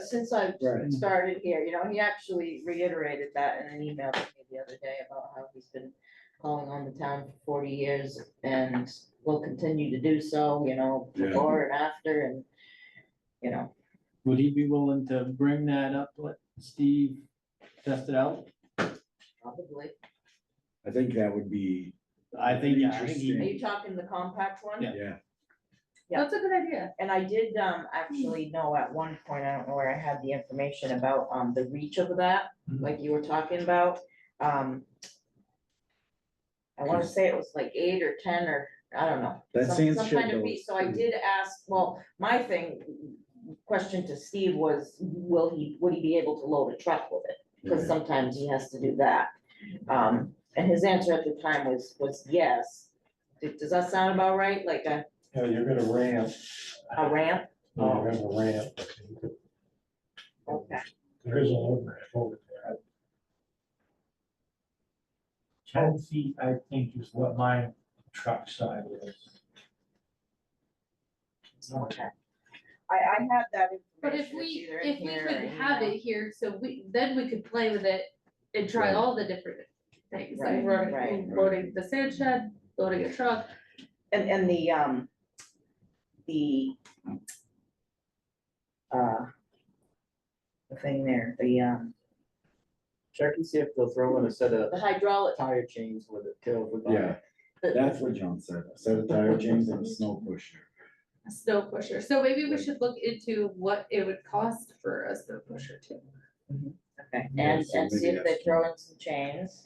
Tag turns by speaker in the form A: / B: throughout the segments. A: since I've
B: Right.
A: started here, you know, he actually reiterated that in an email to me the other day about how he's been calling on the town for forty years and will continue to do so, you know,
C: Yeah.
A: before and after and, you know,
B: Would he be willing to bring that up, let Steve test it out?
A: probably.
C: I think that would be,
B: I think, yeah, I think he-
A: Are you talking the compact one?
B: Yeah.
C: yeah,
A: Yeah.
D: That's a good idea.
A: And I did, um, actually know at one point, I don't know where I had the information about, um, the reach of that,
B: Mhm.
A: like you were talking about, um. I wanna say it was like eight or ten or, I don't know.
C: That
A: some-
C: seems
A: Some kind
C: shit,
A: of
C: though.
A: reach, so I did ask, well, my thing, question to Steve was, will he, would he be able to load a truck with it? Cause
C: Yeah.
A: sometimes he has to do that. Um, and his answer at the time was, was yes. Does does that sound about right? Like a,
E: Yeah, you're gonna ramp,
A: a ramp?
E: no, you're gonna ramp.
A: Okay.
E: There is an overhead over there.
F: Ten feet, I think, is what my truck side is.
A: Okay. I, I had that information.
D: But if
A: It's
D: we,
A: either in
D: if we
A: here or
D: could
A: in
D: have
A: email.
D: it here, so we, then we could play with it and try
C: Right.
D: all the different things,
A: Right,
D: like loading,
A: right.
D: loading the sand shed, loading a truck.
A: And, and the, um, the, uh, the thing there, the, um,
G: Check and see if they'll throw in a set of
A: the hydraulic,
G: tire chains with it too. if we buy it.
C: yeah, that's what John said, a set of tire chains and a snow pusher.
D: A snow pusher, so maybe we should look into what it would cost for a snow pusher too.
A: okay,
C: Yeah,
A: and,
C: so
A: and see
C: maybe
A: if they
C: that's-
A: throw in some chains.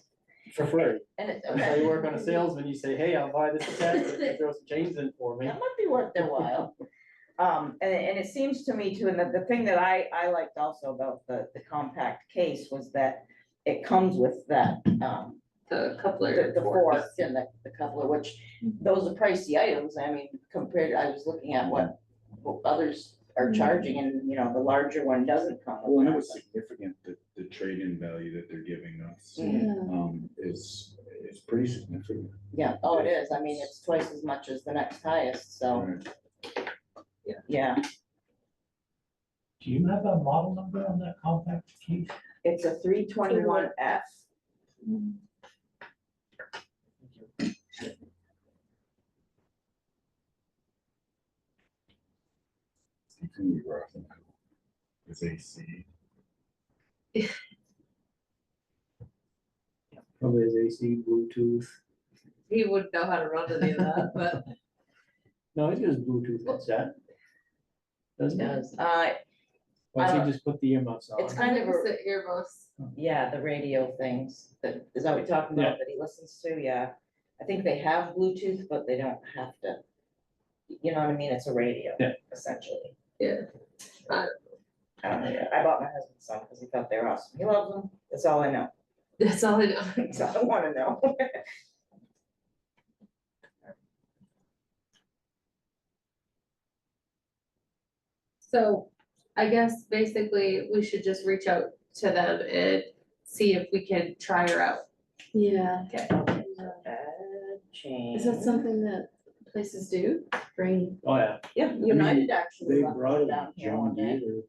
G: For free.
A: And it's,
G: That's how you
A: okay,
G: work on a salesman, you say, hey, I'll buy this set, if you throw some chains in for me.
A: that might be worth their while. Um, and, and it seems to me too, and the, the thing that I, I liked also about the, the compact case was that it comes with that, um,
D: The
A: the,
D: coupler,
A: the forks and the, the coupler, which, those are pricey items, I mean, compared, I was looking at what what others are charging, and, you know, the larger one doesn't come
C: Well,
A: with
C: and it
A: that.
C: was significant, the, the trade-in value that they're giving us,
A: Mm,
C: um, is, is pretty significant.
A: Yeah, oh, it is, I mean, it's twice as much as the next highest, so,
C: Right.
A: yeah,
F: Do you have a model number on that compact case?
A: it's a three twenty-one F.
C: It's gonna be rough. It's AC.
G: Probably is AC, Bluetooth.
D: he wouldn't know how to run any of that, but
G: No, it's just Bluetooth headset. Doesn't it?
A: Does, uh,
B: why don't
A: I
B: you just put the earmuffs on?
A: it's kind of, a-
D: the earmuffs.
A: yeah, the radio things, that, is that what you're talking
B: Yeah.
A: about, that he listens to, yeah. I think they have Bluetooth, but they don't have to, you know what I mean, it's a radio,
B: Yeah.
A: essentially.
D: Yeah,
A: I don't know. I bought my husband some because he thought they were awesome. He loves them. That's all I know.
D: that's all I know.
A: That's all I wanna know.
D: So I guess basically we should just reach out to them and see if we can try her out.
H: Yeah,
D: Okay.
A: Uh, Change.
H: is that something that places do? Bring,
B: Oh, yeah.
A: Yeah,
C: mean,
A: United
C: They
A: actually left
C: brought
A: it
C: a
A: down here
C: John
A: one day,
C: Deere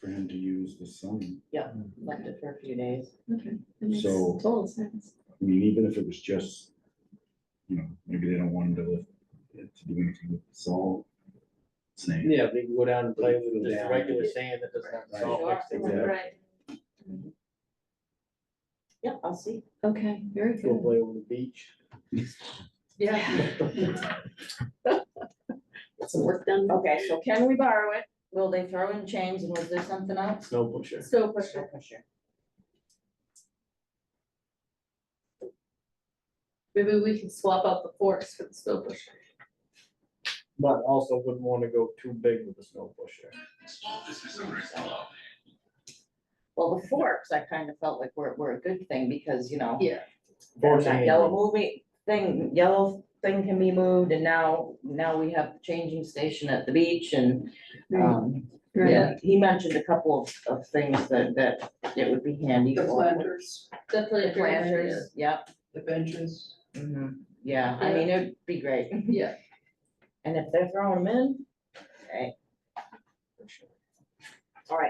C: for him to use this summer.
A: left it for a few days.
H: okay, that makes
C: So-
H: total sense.
C: I mean, even if it was just, you know, maybe they don't want him to lift, it to do anything with the salt. Same.
G: Yeah, we can go down and play with
C: Yeah.
G: just regular sand that doesn't have
C: Right.
G: salt
A: Sure.
G: mixed in it.
D: Right,
A: Yeah, I'll see.
H: Okay, very
G: Go
H: good.
G: play on the beach.
D: yeah,
H: Get some work done.
A: Okay, so can we borrow it? Will they throw in chains and was there something else?
G: Snow pusher.
D: snow pusher.
A: Okay, sure.
D: Maybe we can swap out the forks for the snow pusher.
G: But also wouldn't wanna go too big with a snow pusher.
A: Well, the forks, I kind of felt like were, were a good thing because, you know,
D: Yeah.
G: Forks
A: that
G: and
A: yellow
G: anything.
A: movie thing, yellow thing can be moved and now, now we have the changing station at the beach and, um,
H: Right.
A: yeah, he mentioned a couple of, of things that, that it would be handy for.
I: The planters,
D: The
A: The
D: planters.
A: planters, yep,
I: the benches.
A: mhm, yeah, I mean, it'd be great.
D: Yeah.
A: And if they're throwing them in, okay. All right,